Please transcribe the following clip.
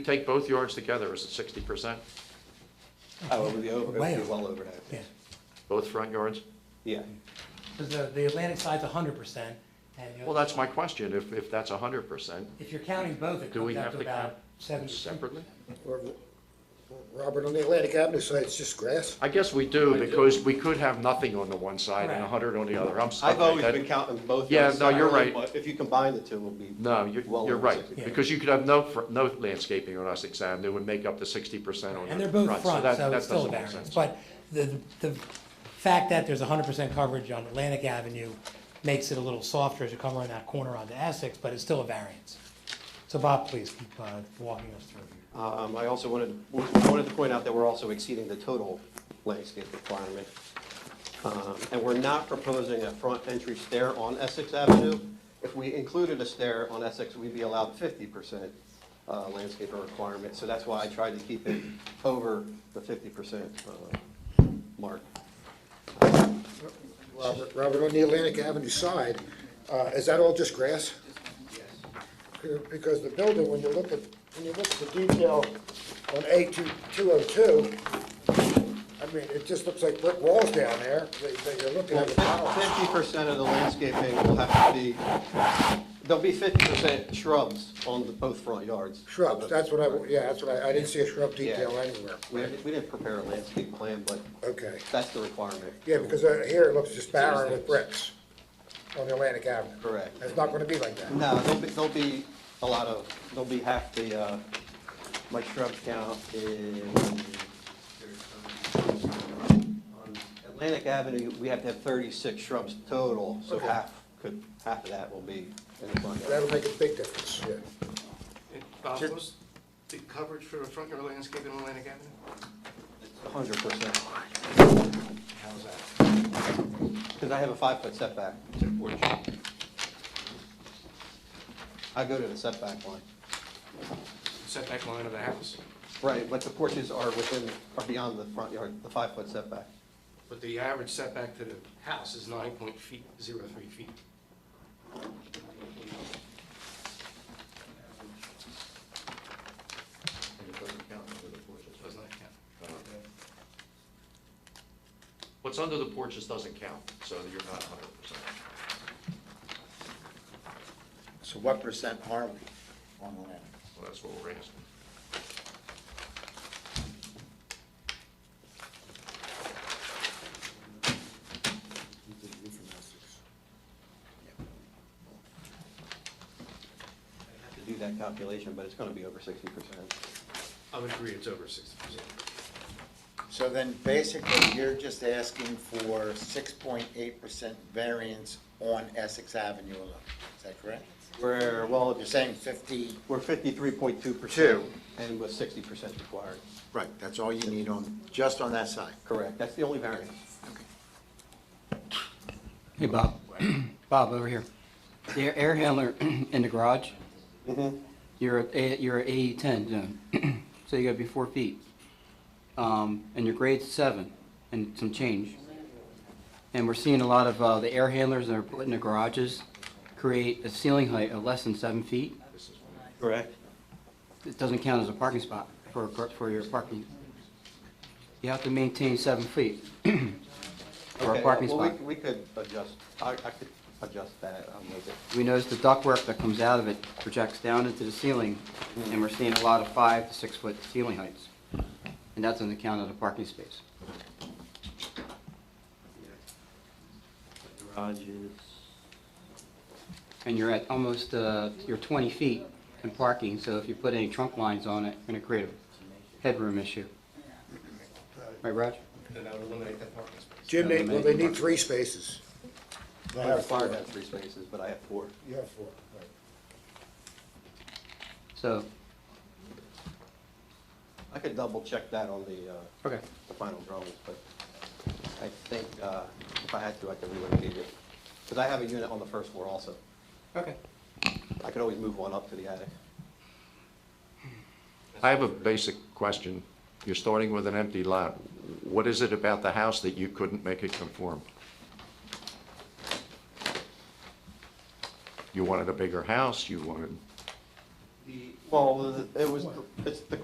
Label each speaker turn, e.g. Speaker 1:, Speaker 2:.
Speaker 1: Take both yards together, is it sixty percent,
Speaker 2: Oh, it would be over, it
Speaker 3: Way
Speaker 2: would be
Speaker 3: over.
Speaker 2: well over that,
Speaker 3: Yeah,
Speaker 1: both front yards?
Speaker 2: yeah.
Speaker 3: because the, the Atlantic side's hundred percent, and the-
Speaker 1: Well, that's my question, if, if that's hundred percent,
Speaker 3: if you're counting both, it
Speaker 1: Do we
Speaker 3: comes out
Speaker 1: have
Speaker 3: to
Speaker 1: to
Speaker 3: about
Speaker 1: count
Speaker 3: seventy.
Speaker 1: separately?
Speaker 4: Or- Robert, on the Atlantic Avenue side, it's just grass.
Speaker 1: I guess we do, because we could have nothing on the one side and
Speaker 3: Right.
Speaker 1: hundred on the other, I'm sorry.
Speaker 2: I've always
Speaker 1: that-
Speaker 2: been counting both.
Speaker 1: Yeah,
Speaker 2: yards
Speaker 1: no, you're right.
Speaker 2: separately, but If you combine the two, it'll be.
Speaker 1: No, you're,
Speaker 2: well
Speaker 1: you're
Speaker 2: over
Speaker 1: right,
Speaker 2: 60.
Speaker 3: Yeah.
Speaker 1: because you could have no, fr- no landscaping on Essex Avenue and make up the sixty percent on the
Speaker 3: And
Speaker 1: front.
Speaker 3: they're both front,
Speaker 1: that-
Speaker 3: so
Speaker 1: that
Speaker 3: it's still
Speaker 1: doesn't
Speaker 3: a
Speaker 1: make
Speaker 3: variance,
Speaker 1: sense.
Speaker 3: but the, the fact that there's hundred percent coverage on Atlantic Avenue makes it a little softer as you come around that corner onto Essex, but it's still a variance. So Bob, please keep, uh, walking us through here.
Speaker 2: Um, I also wanted, I wanted to point out that we're also exceeding the total landscape requirement. Um, And we're not proposing a front entry stair on Essex Avenue. If we included a stair on Essex, we'd be allowed fifty percent landscaper requirement. So that's why I tried to keep it over the fifty percent uh, mark.
Speaker 4: Robert, Robert, on the Atlantic Avenue side, uh, is that all just grass? Yes. Because the building, when you look at, when you look at the detail on A two, two oh two, I mean, it just looks like brick walls down there, that that you're looking at the columns.
Speaker 2: Fifty percent of the landscaping will have to be, there'll be fifty percent shrubs on the both front yards.
Speaker 4: Shrubs, that's what I, yeah, that's what I, I didn't see a shrub
Speaker 2: Yeah.
Speaker 4: detail anywhere.
Speaker 2: We didn't we didn't prepare a landscape plan, but
Speaker 4: Okay,
Speaker 2: That's the requirement.
Speaker 4: yeah, because uh, here it looks just barren with bricks on the Atlantic Avenue.
Speaker 2: Correct.
Speaker 4: It's not gonna be like that.
Speaker 2: No, there'll be, there'll be a lot of, there'll be half the, uh, my shrub count is. on Atlantic Avenue, we have to have thirty-six shrubs total, so
Speaker 4: Okay.
Speaker 2: half could, half of that will be in the front yard.
Speaker 4: That'll make a big difference, yeah.
Speaker 5: Bob, what was the coverage for the front yard landscaping on Atlantic Avenue?
Speaker 2: Hundred percent,
Speaker 5: How's that?
Speaker 2: because I have a five-foot setback. I go to the setback line.
Speaker 5: Setback line of the house,
Speaker 2: Right, but the porches are within, are beyond the front yard, the five-foot setback.
Speaker 5: but the average setback to the house is nine point feet, zero three feet. Does not count.
Speaker 1: What's under the porches doesn't count, so you're not hundred percent.
Speaker 6: So what percent are we on the land?
Speaker 1: Well, that's what we're asking.
Speaker 2: I have To do that calculation, but it's gonna be over sixty percent.
Speaker 5: I would agree, it's over sixty percent.
Speaker 6: So then basically, you're just asking for six point eight percent variance on Essex Avenue alone, is that correct?
Speaker 2: We're, well,
Speaker 6: You're saying fifty?
Speaker 2: we're fifty-three point two percent.
Speaker 6: Two.
Speaker 2: And with sixty percent required.
Speaker 6: Right, that's all you need on, just on that side.
Speaker 2: Correct, that's the only variance.
Speaker 7: Hey, Bob. Bob, over here. The air handler in the garage,
Speaker 2: Mm-hmm.
Speaker 7: you're at, A- you're at AE ten zone, so you gotta be four feet. Um, and your grade's seven and some change. And we're seeing a lot of, uh, the air handlers that are put in the garages create a ceiling height of less than seven feet.
Speaker 2: Correct.
Speaker 7: It doesn't count as a parking spot for, for your parking. You have to maintain seven feet for a
Speaker 2: Okay,
Speaker 7: parking
Speaker 2: well,
Speaker 7: spot.
Speaker 2: we, we could adjust, I, I could adjust that, I'll make it.
Speaker 7: We notice the ductwork that comes out of it projects down into the ceiling, and we're seeing a lot of five to six-foot ceiling heights. And that's on the count of the parking space.
Speaker 2: Garage is.
Speaker 7: And you're at almost, uh, you're 20 feet in parking, so if you put any trunk lines on it, you're going to create a headroom issue. Right, Roger?
Speaker 5: Then I would eliminate that parking space.
Speaker 4: Jim, they- well, they need three spaces.
Speaker 2: I
Speaker 4: They
Speaker 2: have
Speaker 4: have
Speaker 2: fire,
Speaker 4: four.
Speaker 2: I have three spaces, but I have four.
Speaker 4: You have four, right.
Speaker 7: So,
Speaker 2: I could double check that on the, uh,
Speaker 7: okay.
Speaker 2: the final drawings, but I think, uh, if I had to, I could relocate it. Because I have a unit on the first floor also.
Speaker 7: Okay.
Speaker 2: I could always move one up to the attic.
Speaker 1: I have a basic question. You're starting with an empty lot. What is it about the house that you couldn't make it conform? You wanted a bigger house, you wanted,
Speaker 5: the
Speaker 2: Well, it was, it's the